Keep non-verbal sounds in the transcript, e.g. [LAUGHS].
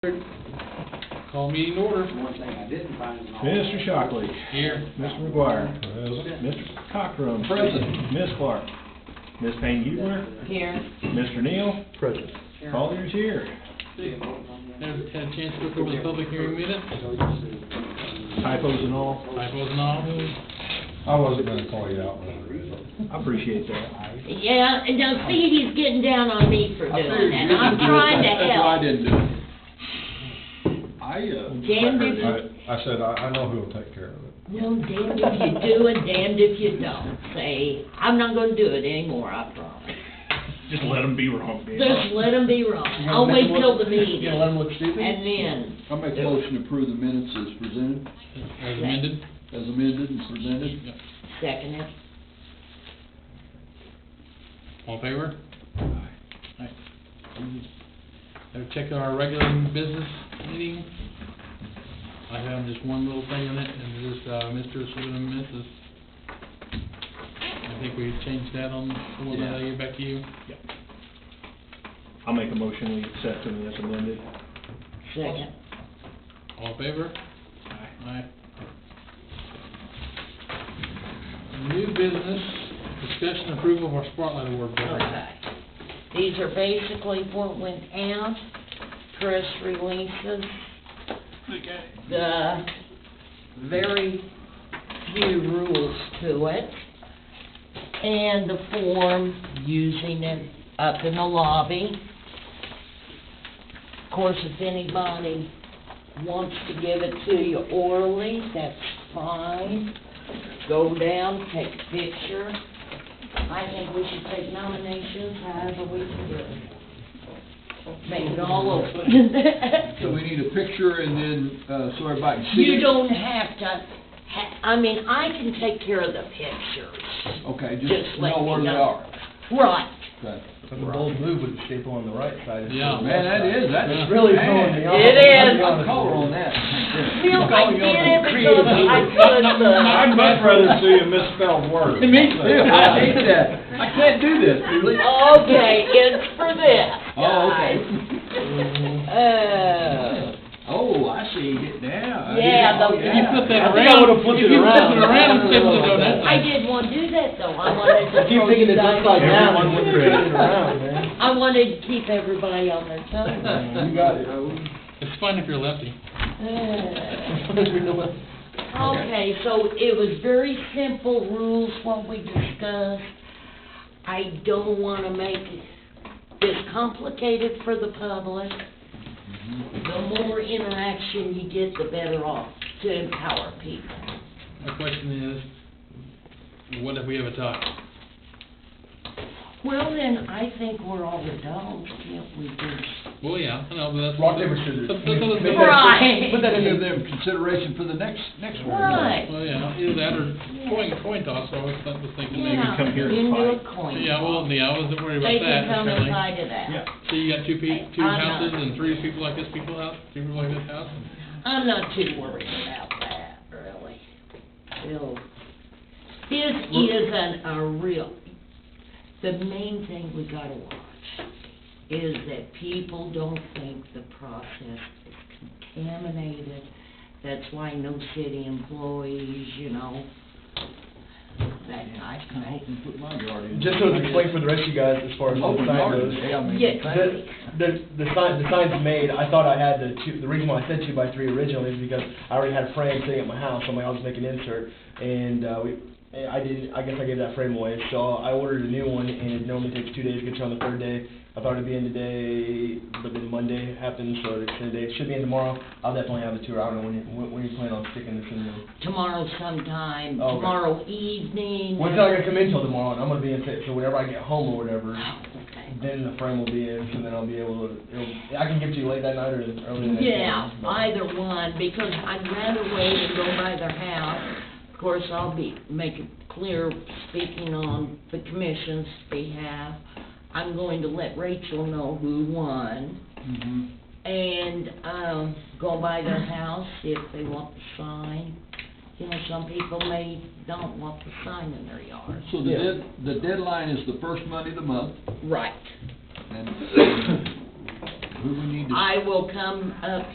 Call meeting order. One thing I didn't find is. Mr. Shockley. Here. Mr. McGuire. Mr. Cockrum. Present. Ms. Clark. Ms. Payne Huber. Here, Mr. Neal. Present. Collier's here. Have had a chance to look over the public hearing minutes, Typos and all. typos and all. I wasn't gonna call you out when I read it. I appreciate that. yeah, and now Stevie's getting down on me for doing that, and I'm trying to That's why I help. didn't do it. I, uh. Damned if you, I, I said, I, I know who'll take care of it. no, damned if you do and damned if you don't, say, I'm not gonna do it anymore, I promise. Just let them be wrong, man. Just let them be wrong, I'll wait till the meeting, You gonna let them look stupid? and then, I make a motion to approve the minutes as presented, As amended. as amended and presented. Yep. second it. All in favor? Aye. Have a check on our regular business meeting. I have just one little thing on it, and it is, uh, Mr. Swiven Mrs. I think we changed that on, we'll Yeah. get back to you. I'll make a motion, we accept them as amended. Second. All in favor? Aye. New business, discussion approval of our spotlight award bid. Okay. These are basically what went out, press releases. The very few rules to it, and the form using it up in the lobby. Of course, if anybody wants to give it to you orally, that's fine. Go down, take a picture. I think we should take nominations however we can do it. Make it all [LAUGHS] So open. we need a picture and then, uh, so everybody can see it? You don't have to, ha- I mean, I can take care of the pictures. Okay, Just just let know me where they know. are. Right. Okay. That's a bold move with the staple on the right side. instead of the Man, left that side. is, that's It's really Really throwing bad. me off. It I'll be is. I'm honest color with on you. that. Bill, I did it because I could, I'd but, much rather see a misspelled [LAUGHS] word. Me too, I hate that. I can't do this, really. okay, it's for this. Oh, okay. guys. Oh, I see it now. Yeah, the- Oh, If If you flip that I around. think I would've flipped it If you flip around. it around and flip it around, Uh, that's. I didn't want to do that though, I wanted to. Keep thinking it's just like that, Everyone when would you create turn it. it around, man. I wanted to keep everybody on their toes. You got it. It's fun if you're lefty. [LAUGHS] [LAUGHS] Uh, Okay, so it was very simple rules, what we discussed. I don't want to make this complicated for the public. Mm-hmm. The more interaction you get, the better off to empower people. My question is, what if we have a tie? Well, then, I think we're all adults, can't we just? Well, yeah, I know, but that's. Rock, paper, scissors. That's- that's- that's- Make that's- Right. Put that into them consideration for the next, next one. Right, Well, yeah, either that or coin, coin toss, I always thought- was thinking maybe. yeah, come here and into a fight. coin. Yeah, well, yeah, I wasn't worried They about can that, come and apparently. fight it Yeah. out. So you got two pe, two I'm not. houses and three people like this people house, two people like this house? I'm not too worried about that, really. Bill, this isn't a real, the main thing we gotta watch is that people don't think the process is contaminated. That's why no city employees, you know, that type I of hope thing. and put my yard in. Just to explain for the rest of you guys as far as what the Open sign yard, goes. yeah, I mean. Yeah, The, the, the sign, the sign's made, I thought I had the two, the reason why I said two by three originally is because I already had a frame sitting at my house, I'm like, I'll just make an insert. And, uh, we, and I didn't, I guess I gave that frame away, so I ordered a new one, and it normally takes two days, gets here on the third day. I thought it'd be in today, but then Monday happened, so it extended today, it should be in tomorrow, I'll definitely have it to her, I don't know when, you- when, when you plan on sticking this in there. tomorrow sometime, Okay. tomorrow evening. Well, it's not gonna come in till tomorrow, and I'm gonna be in sick, so whenever I get home or whatever, Oh, Okay. then the frame will be in, so then I'll be able to, it'll, I can give it to you late that night or early the next morning. Yeah, either one, because I'd rather wait and go by their house. Of course, I'll be, make it clear, speaking on the commission's behalf, I'm going to let Rachel know who won, Mhm. and, um, go by their house, see if they want the sign. You know, some people may don't want the sign in their yard. So the Yeah. dead, the deadline is the first Monday of the month, Right. and [COUGHS] who we need to I will come up